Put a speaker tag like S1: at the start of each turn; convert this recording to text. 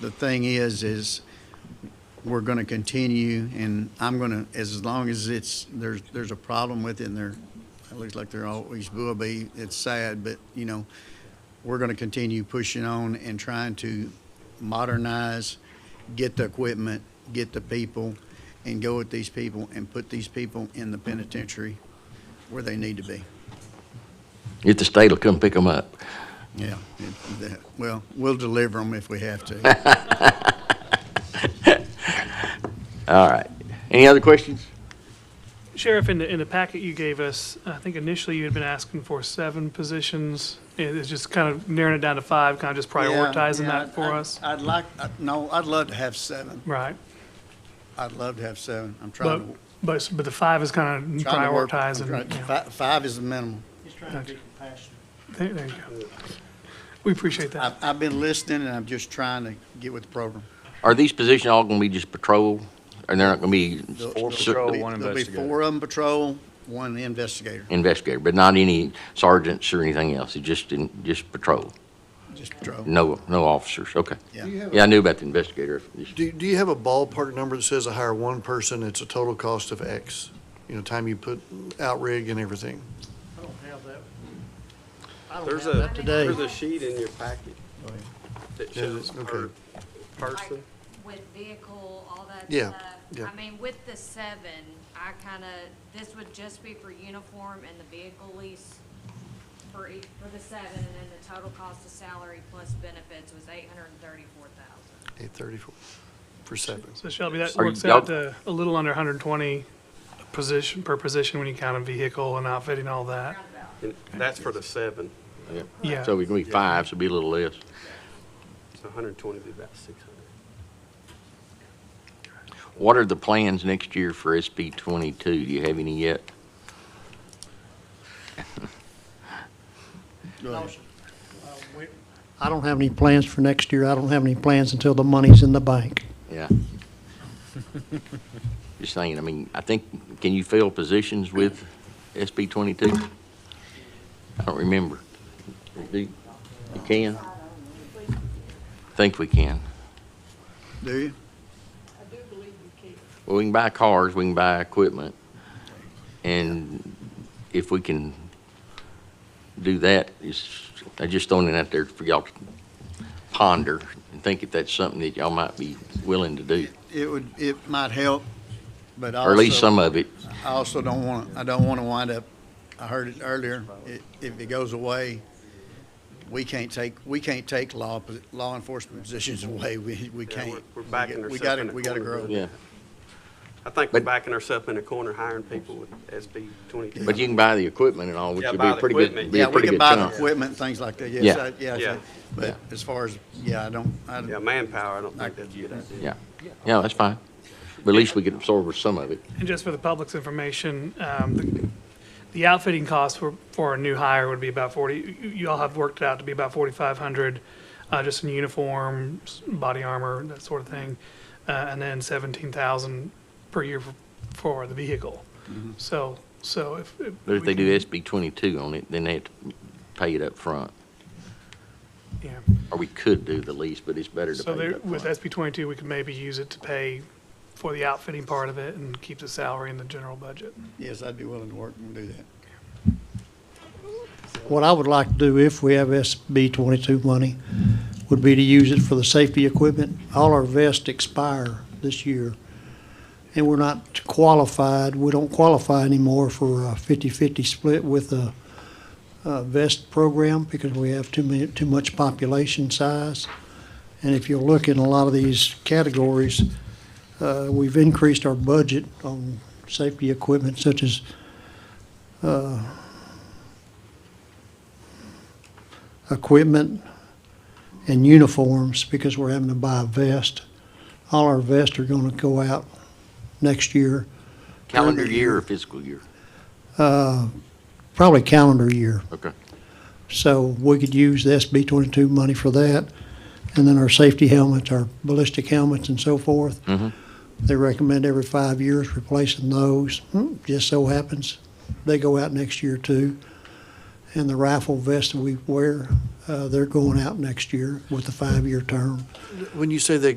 S1: the thing is, is we're going to continue, and I'm going to, as long as it's, there's, there's a problem with it, and there, it looks like there always will be, it's sad, but, you know, we're going to continue pushing on and trying to modernize, get the equipment, get the people, and go with these people, and put these people in the penitentiary where they need to be.
S2: If the state will come pick them up.
S1: Yeah, it- that- well, we'll deliver them if we have to.
S2: All right. Any other questions?
S3: Sheriff, in the, in the packet you gave us, I think initially you had been asking for seven positions. It- It's just kind of narrowing it down to five, kind of just prioritizing
S1: Yeah, yeah,
S3: that for
S1: I'd-
S3: us.
S1: I'd like, I- no, I'd love to have seven.
S3: Right.
S1: I'd love to have seven. I'm
S3: But,
S1: trying to.
S3: but, but the five is kind of
S1: trying to work- I'm
S3: prioritizing.
S1: trying-
S3: yeah.
S1: fi- Five is the minimum.
S4: He's trying to be compassionate.
S3: There there you go. We appreciate that.
S1: I've, I've been listening and I'm just trying to get with the program.
S2: Are these positions all going to be just patrol? And they're not going to be
S1: There'll-
S5: Four
S1: there'll
S5: patrol,
S1: be-
S5: one
S1: There'll be
S5: investigator.
S1: four of them patrol, one investigator,
S2: investigator, but not any sergeants or anything else? It's just, in- just patrol?
S1: just patrol.
S2: No, no officers? Okay.
S1: Yeah.
S2: Yeah, I knew about the investigator.
S6: Do, do you have a ballpark number that says I hire one person, it's a total cost of X? You know, time you put out rig and everything?
S4: I don't have that. I don't
S7: There's
S4: have
S7: a,
S4: that today.
S7: there's a sheet in your packet that
S6: Yeah,
S7: shows
S6: okay.
S7: per
S8: like
S7: person.
S8: with vehicle, all that
S6: Yeah,
S8: stuff.
S6: yeah.
S8: I mean, with the seven, I kinda, this would just be for uniform and the vehicle lease for each, for the seven, and then the total cost of salary plus benefits was eight hundred and thirty-four thousand.
S6: Eight thirty-four for seven.
S3: So Shelby, that
S2: Are you-
S3: works out to a little under 120 position, per position when you count a vehicle and outfitting all that.
S8: Roundabout.
S7: And that's for the seven.
S3: Yeah.
S2: So we're going to be five, so it'll be a little less.
S7: So hundred and twenty would be about six hundred.
S2: What are the plans next year for SB 22? Do you have any yet?
S4: Uh, we- I don't have any plans for next year. I don't have any plans until the money's in the bank.
S2: Yeah. Just saying, I mean, I think, can you fill positions with SB 22? I don't remember. Do you you can? Think we can.
S1: Do you?
S2: Well, we can buy cars, we can buy equipment, and if we can do that, it's, I just throwing it out there for y'all to ponder and think if that's something that y'all might be willing to do,
S1: It would, it might help, but also.
S2: or at least some of it.
S1: I also don't want, I don't want to wind up, I heard it earlier, i- if it goes away, we can't take, we can't take law, pos- law enforcement positions away, we, we
S7: Yeah, we're-
S1: can't.
S7: we're backing
S1: We
S7: ourselves
S1: gotta-
S7: in a
S1: We gotta
S7: corner,
S1: grow.
S7: really.
S2: Yeah.
S7: I think we're
S2: But-
S7: backing ourselves in a corner hiring people with SB twenty-two.
S2: But you can buy the equipment and all, which
S7: Yeah,
S2: would be
S7: buy
S2: a
S7: the
S2: pretty good,
S7: equipment.
S2: be
S1: Yeah,
S2: a
S1: we
S2: pretty
S1: can
S2: good
S1: buy the
S2: chunk.
S1: equipment, and things like that, yes,
S2: Yeah.
S1: I- yeah,
S7: Yeah.
S1: I- but as far as, yeah, I don't, I,
S7: Yeah, manpower, I don't think that's a good idea.
S2: Yeah, yeah, that's fine. But at least we can absorb some of it.
S3: And just for the public's information, um, the- the outfitting cost for, for a new hire would be about 40, you- you all have worked it out to be about 4,500, uh, just in uniform, s- body armor, that sort of thing, uh, and then 17,000 per year for- for the vehicle. So, so if.
S2: But if
S3: we
S2: they do
S3: can-
S2: SB twenty-two on it, then they have to pay it up front.
S3: Yeah.
S2: Or we could do the lease, but it's better to
S3: So
S2: pay it
S3: there,
S2: up
S3: with
S2: front.
S3: SB 22, we could maybe use it to pay for the outfitting part of it and keep the salary in the general budget.
S1: yes, I'd be willing to work and do that.
S4: What I would like to do if we have SB twenty-two money would be to use it for the safety equipment. All our vests expire this year. And we're not qualified, we don't qualify anymore for a fifty-fifty split with a, uh vest program because we have too many, too much population size. And if you look in a lot of these categories, uh, we've increased our budget on safety equipment such as equipment and uniforms because we're having to buy a vest. All our vests are gonna go out next year,
S2: Calendar year or fiscal year?
S4: uh, probably calendar year.
S2: Okay.
S4: So we could use the SB twenty-two money for that. And then our safety helmets, our ballistic helmets and so forth.
S2: Mm-hmm.
S4: They recommend every five years replacing those. Hmm, Just so happens, they go out next year too. And the rifle vest that we wear, Uh, They're going out next year with a five-year term.
S6: When you say they